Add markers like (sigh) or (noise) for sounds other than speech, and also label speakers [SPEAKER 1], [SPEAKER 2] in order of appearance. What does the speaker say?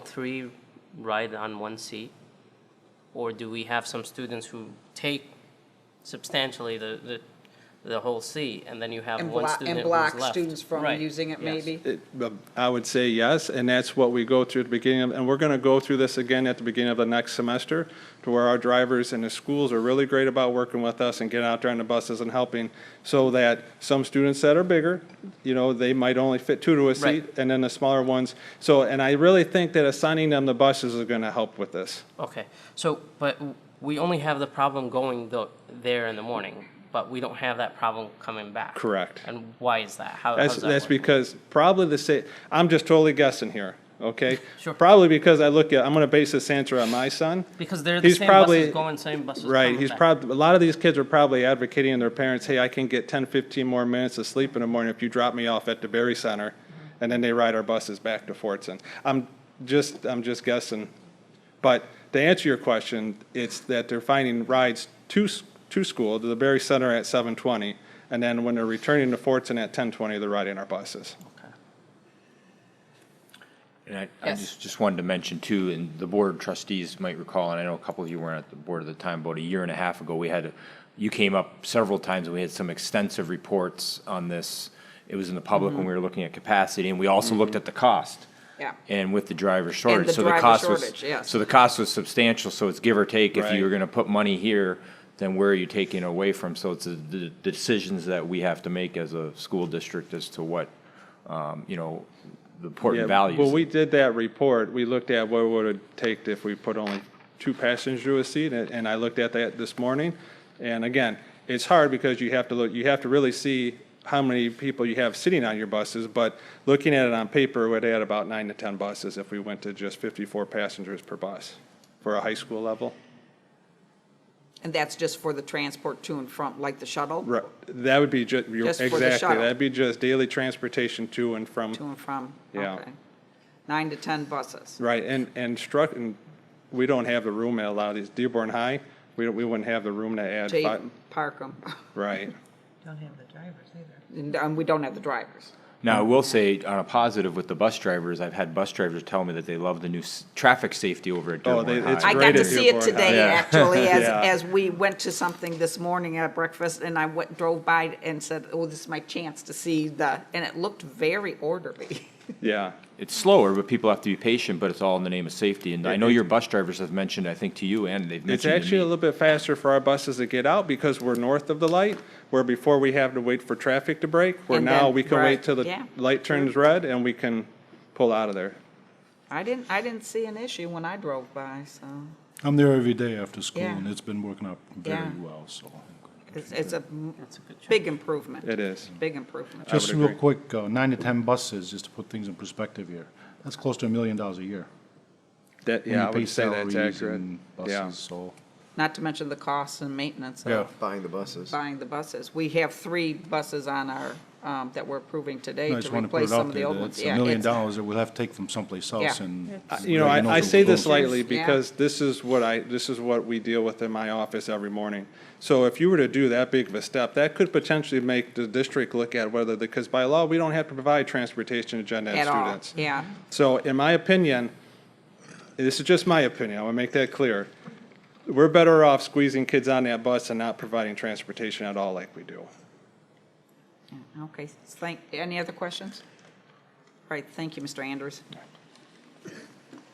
[SPEAKER 1] three ride on one seat? Or do we have some students who take substantially the, the, the whole seat, and then you have
[SPEAKER 2] And
[SPEAKER 1] one
[SPEAKER 2] block,
[SPEAKER 1] student
[SPEAKER 2] and
[SPEAKER 1] who's
[SPEAKER 2] block
[SPEAKER 1] left?
[SPEAKER 2] students from
[SPEAKER 1] Right,
[SPEAKER 2] using it,
[SPEAKER 1] yes.
[SPEAKER 2] maybe?
[SPEAKER 3] It- um, I would say yes, and that's what we go through at the beginning, of- and we're going to go through this again at the beginning of the next semester, to where our drivers and the schools are really great about working with us and getting out there on the buses and helping, so that some students that are bigger, you know, they might only fit two to a
[SPEAKER 1] Right.
[SPEAKER 3] seat, and then the smaller ones. So, and I really think that assigning them the buses is going to help with this.
[SPEAKER 1] Okay, so, but w- we only have the problem going the, there in the morning, but we don't have that problem coming back.
[SPEAKER 3] Correct.
[SPEAKER 1] And why is that? How, how
[SPEAKER 3] That's,
[SPEAKER 1] does that
[SPEAKER 3] that's
[SPEAKER 1] work?
[SPEAKER 3] because probably the same, I'm just totally guessing here, okay?
[SPEAKER 1] Sure.
[SPEAKER 3] Probably because I look at, I'm going to base this answer on my son.
[SPEAKER 1] Because they're the
[SPEAKER 3] he's
[SPEAKER 1] same
[SPEAKER 3] probably-
[SPEAKER 1] buses going, same buses coming
[SPEAKER 3] Right, he's
[SPEAKER 1] back.
[SPEAKER 3] probably, a lot of these kids are probably advocating to their parents, hey, I can get 10, 15 more minutes of sleep in the morning if you drop me off at the Berry Center, and then they ride our buses back to Fortson. I'm just, I'm just guessing. But to answer your question, it's that they're finding rides to, s- to school, to the Berry Center at 7:20, and then when they're returning to Fortson at 10:20, they're riding our buses.
[SPEAKER 4] And I, I
[SPEAKER 2] Yes.
[SPEAKER 4] just, just wanted to mention too, and the board of trustees might recall, and I know a couple of you weren't at the board at the time, about a year and a half ago, we had, you came up several times, and we had some extensive reports on this. It was in the public when we were looking at capacity, and we also looked at the cost.
[SPEAKER 2] Mm-hmm. Yeah.
[SPEAKER 4] And with the driver shortage, so the
[SPEAKER 2] driver
[SPEAKER 4] cost was.
[SPEAKER 2] shortage, yes.
[SPEAKER 4] So the cost was substantial, so it's give or take, if
[SPEAKER 3] Right.
[SPEAKER 4] you were gonna put money here, then where are you taking away from? So it's the, the decisions that we have to make as a school district as to what, um, you know, the important
[SPEAKER 3] Yeah,
[SPEAKER 4] values.
[SPEAKER 3] When we did that report, we looked at what would it take if we put only two passengers to a seat, and and I looked at that this morning. And again, it's hard because you have to look, you have to really see how many people you have sitting on your buses, but looking at it on paper, we'd add about nine to 10 buses if we went to just 54 passengers per bus for a high school level.
[SPEAKER 2] And that's just for the transport to and from, like the shuttle?
[SPEAKER 3] Right, that would be just,
[SPEAKER 2] Just for the
[SPEAKER 3] exactly,
[SPEAKER 2] shuttle.
[SPEAKER 3] that'd be just daily transportation to and from.
[SPEAKER 2] To and from?
[SPEAKER 3] Yeah.
[SPEAKER 2] Okay. Nine to 10 buses.
[SPEAKER 3] Right, and, and struck, and we don't have the room at a lot of these, Dearborn High, we, don't- we wouldn't have the room to add
[SPEAKER 2] Jay,
[SPEAKER 3] five,
[SPEAKER 2] park them.
[SPEAKER 3] right.
[SPEAKER 5] Don't have the drivers either.
[SPEAKER 2] And um, we don't have the drivers.
[SPEAKER 4] Now, I will say, on a positive with the bus drivers, I've had bus drivers tell me that they love the new s- traffic safety over at
[SPEAKER 3] Oh,
[SPEAKER 4] Dearborn
[SPEAKER 3] they-
[SPEAKER 4] High.
[SPEAKER 3] it's
[SPEAKER 2] I
[SPEAKER 3] great
[SPEAKER 2] got to
[SPEAKER 3] at
[SPEAKER 2] see it
[SPEAKER 3] Dearborn
[SPEAKER 2] today,
[SPEAKER 4] High. Yeah.
[SPEAKER 3] (laughs)
[SPEAKER 2] actually, as,
[SPEAKER 3] Yeah.
[SPEAKER 2] as we went to something this morning at breakfast, and I went, drove by and said, oh, this is my chance to see the, and it looked very orderly. (laughs)
[SPEAKER 3] Yeah,
[SPEAKER 4] It's slower, but people have to be patient, but it's all in the name of safety. And I know your bus drivers have mentioned, I think to you, and they've
[SPEAKER 3] it's
[SPEAKER 4] mentioned
[SPEAKER 3] actually a
[SPEAKER 4] to me.
[SPEAKER 3] little bit faster for our buses to get out because we're north of the light, where before we have to wait for traffic to break, where
[SPEAKER 2] And
[SPEAKER 3] now
[SPEAKER 2] then-
[SPEAKER 3] we can wait
[SPEAKER 2] right,
[SPEAKER 3] till
[SPEAKER 2] yeah.
[SPEAKER 3] the light turns red and we can pull out of there.
[SPEAKER 2] I didn't, I didn't see an issue when I drove by, so
[SPEAKER 6] I'm there every day after school,
[SPEAKER 2] Yeah.
[SPEAKER 6] and it's been working out very
[SPEAKER 2] Yeah.
[SPEAKER 6] well, so.
[SPEAKER 2] it's, it's a m- big improvement.
[SPEAKER 3] It is.
[SPEAKER 2] Big improvement.
[SPEAKER 3] would
[SPEAKER 6] Just real
[SPEAKER 3] agree.
[SPEAKER 6] quick, uh, nine to 10 buses, just to put things in perspective here. That's close to a million dollars a year.
[SPEAKER 3] That,
[SPEAKER 6] when
[SPEAKER 3] yeah,
[SPEAKER 6] you
[SPEAKER 3] I
[SPEAKER 6] pay
[SPEAKER 3] would say that's
[SPEAKER 6] salaries
[SPEAKER 3] accurate,
[SPEAKER 6] and
[SPEAKER 3] yeah.
[SPEAKER 6] Buses, so.
[SPEAKER 2] Not to mention the costs and maintenance
[SPEAKER 6] Yeah.
[SPEAKER 2] of
[SPEAKER 7] buying the buses.
[SPEAKER 2] buying the buses. We have three buses on our, um, that we're approving today to
[SPEAKER 6] I just want to put
[SPEAKER 2] replace
[SPEAKER 6] it
[SPEAKER 2] some
[SPEAKER 6] out
[SPEAKER 2] of the
[SPEAKER 6] there
[SPEAKER 2] old
[SPEAKER 6] that
[SPEAKER 2] ones.
[SPEAKER 6] it's a
[SPEAKER 2] Yeah,
[SPEAKER 6] million
[SPEAKER 2] it's-
[SPEAKER 6] dollars that we'll have to take from someplace else
[SPEAKER 2] Yeah.
[SPEAKER 6] and.
[SPEAKER 3] Uh, You know, I, I say this lightly
[SPEAKER 2] Yeah.
[SPEAKER 3] because this is what I, this is what we deal with in my office every morning. So if you were to do that big of a step, that could potentially make the district look at whether, because by law, we don't have to provide transportation to gen ed
[SPEAKER 2] At all,
[SPEAKER 3] students.
[SPEAKER 2] yeah.
[SPEAKER 3] So in my opinion, this is just my opinion, I want to make that clear. We're better off squeezing kids on that bus and not providing transportation at all like we do.
[SPEAKER 2] Okay, thank, any other questions? All right, thank you, Mr. Andrews.